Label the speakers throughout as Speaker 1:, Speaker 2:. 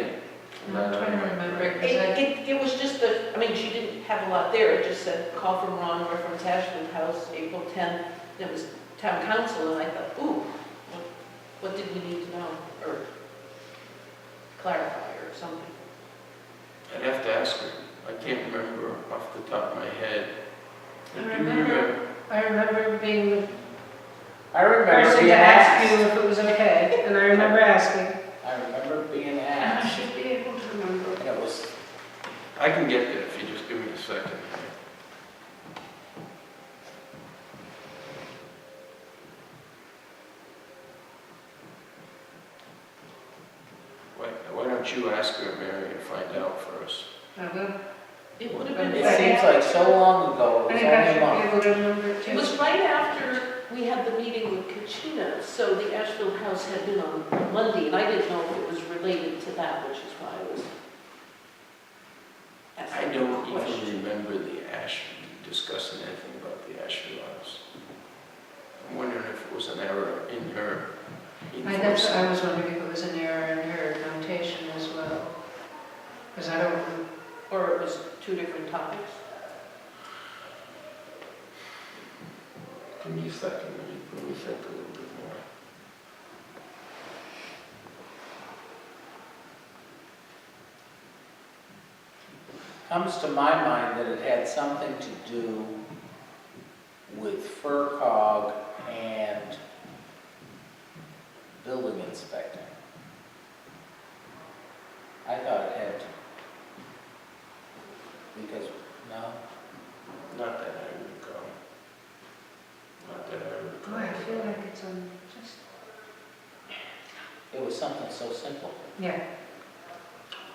Speaker 1: I'm trying to remember,
Speaker 2: It,
Speaker 1: 'cause I-
Speaker 2: it, it was just the, I mean, she didn't have a lot there, it just said, call from Ron, we're from Tashwood House, April tenth, and it was town council, and I thought, ooh, what, what did we need to know, or clarify or something?
Speaker 3: I'd have to ask her. I can't remember off the top of my head.
Speaker 1: I
Speaker 3: Do you
Speaker 1: remember- I remember being the
Speaker 4: I remember
Speaker 1: person
Speaker 4: being
Speaker 1: to ask you
Speaker 4: asked.
Speaker 1: if it was okay, and I remember asking.
Speaker 4: I remember being
Speaker 1: And I
Speaker 4: asked.
Speaker 1: should be able to remember.
Speaker 4: And it was,
Speaker 3: I can get that if you just give me a second. Why, why don't you ask her, Mary, and find out first?
Speaker 1: I will.
Speaker 2: It would have
Speaker 1: But
Speaker 2: been,
Speaker 4: it
Speaker 1: Yeah.
Speaker 4: seems like so long ago,
Speaker 1: I
Speaker 4: it was
Speaker 1: think
Speaker 4: only
Speaker 1: I
Speaker 4: a
Speaker 1: should be
Speaker 4: month.
Speaker 1: able to remember it
Speaker 2: it was
Speaker 1: too.
Speaker 2: right after we had the meeting with Kachina, so the Asheville House had been on Monday, and I didn't know if it was related to that, which is why I was
Speaker 3: I
Speaker 2: asking the
Speaker 3: don't
Speaker 2: question.
Speaker 3: even remember the ash, discussing anything about the Asheville house. I'm wondering if it was an error in her.
Speaker 1: I, that's,
Speaker 3: enforcement.
Speaker 1: I was wondering if it was an error in her notation as well. Because I don't,
Speaker 2: Or it was two different topics?
Speaker 3: Give me a second, let me, let me think a little bit more.
Speaker 4: Comes to my mind that it had something to do with FERCog and building inspector. I thought it had, because, no,
Speaker 3: Not that I recall. Not that I
Speaker 1: boy,
Speaker 3: recall.
Speaker 1: I feel like it's on, just,
Speaker 4: it was something so simple.
Speaker 1: yeah.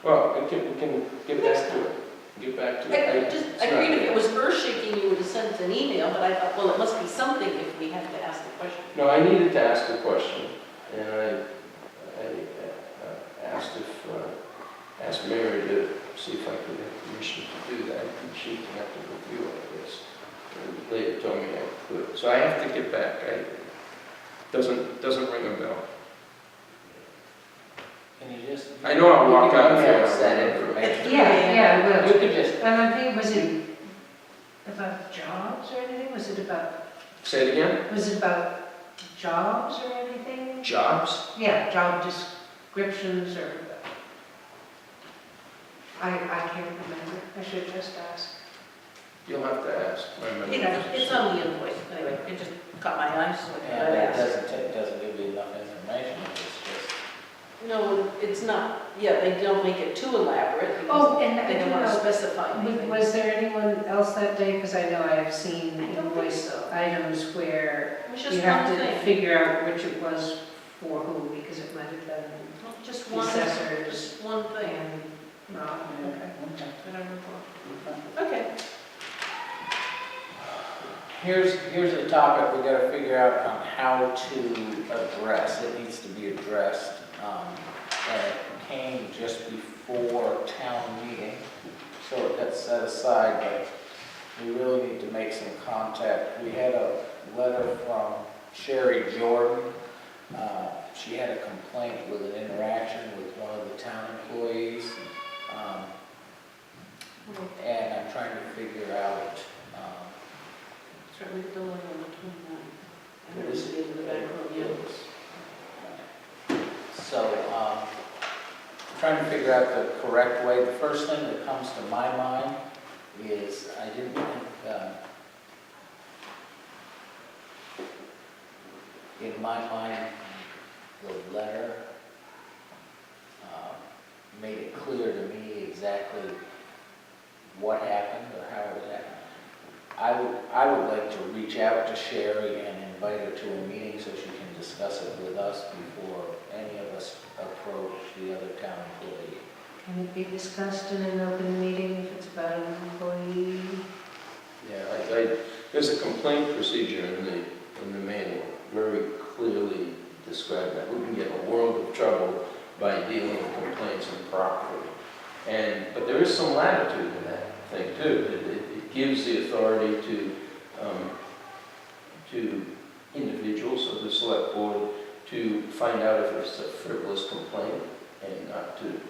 Speaker 3: Well, we can, we can get back to it, get back to
Speaker 2: I
Speaker 3: it.
Speaker 2: just,
Speaker 3: It's
Speaker 2: I
Speaker 3: not-
Speaker 2: agreed if it was earth shaking, you would have sent an email, but I thought, well, it must be something if we have to ask the question.
Speaker 3: No, I needed to ask a question, and I, I uh, asked if, uh, asked Mary to see if I could have permission to do that, and she connected with you, I guess. And Later told me I could, so I have to get back, I, doesn't, doesn't ring a bell.
Speaker 4: Can you just?
Speaker 3: I know I walked out of
Speaker 4: You
Speaker 3: here.
Speaker 4: can email us that information.
Speaker 1: Yeah, yeah, I will.
Speaker 4: You could just
Speaker 1: And I think, was it about jobs or anything? Was it about,
Speaker 3: Say it again?
Speaker 1: was it about jobs or anything?
Speaker 3: Jobs?
Speaker 1: Yeah, job descriptions or, I, I can't remember. I should just ask.
Speaker 3: You'll have to ask. My memory
Speaker 2: You know,
Speaker 3: is-
Speaker 2: it's on the invoice, anyway, it just caught my eye, so I
Speaker 4: Yeah,
Speaker 2: thought I'd
Speaker 4: that
Speaker 2: ask.
Speaker 4: doesn't, ta- doesn't give you enough information, it's just,
Speaker 2: No, it's not, yeah, they don't make it too elaborate, because
Speaker 1: Oh, and I
Speaker 2: they
Speaker 1: do
Speaker 2: don't want to
Speaker 1: know,
Speaker 2: specify
Speaker 1: w-
Speaker 2: anything.
Speaker 1: was there anyone else that day? Because I know I have seen
Speaker 2: I don't think
Speaker 1: invoice
Speaker 2: so.
Speaker 1: items where
Speaker 2: It was
Speaker 1: you
Speaker 2: just
Speaker 1: have
Speaker 2: one
Speaker 1: to
Speaker 2: thing,
Speaker 1: figure out which it was for who, because it might have been
Speaker 2: just
Speaker 1: the
Speaker 2: one,
Speaker 1: assessors
Speaker 2: just one thing,
Speaker 1: and Rob.
Speaker 4: yeah, okay.
Speaker 2: I don't recall. Okay,
Speaker 4: Here's, here's a topic we gotta figure out on how to address, it needs to be addressed. um, And it came just before town meeting, so it got set aside, but we really need to make some contact. We had a letter from Sherry Jordan. Uh, She had a complaint with an interaction with one of the town employees. um, And I'm trying to figure out, um,
Speaker 2: certainly the one on the 29th. I
Speaker 4: It
Speaker 2: remember
Speaker 4: is-
Speaker 2: being in the back room, yeah.
Speaker 4: So, um, trying to figure out the correct way, the first thing that comes to my mind is, I didn't think, uh, in my mind, the letter um, made it clear to me exactly what happened or how it happened. I would, I would like to reach out to Sherry and invite her to a meeting so she can discuss it with us before any of us approach the other town employee.
Speaker 1: Can it be discussed in an open meeting if it's about an employee?
Speaker 3: Yeah, I, I, there's a complaint procedure in the, in the manual, very clearly described that. We can get in a world of trouble by dealing with complaints improperly. And, but there is some latitude in that thing too. It, it it gives the authority to, um, to individuals of the select board to find out if it's a frivolous complaint and not to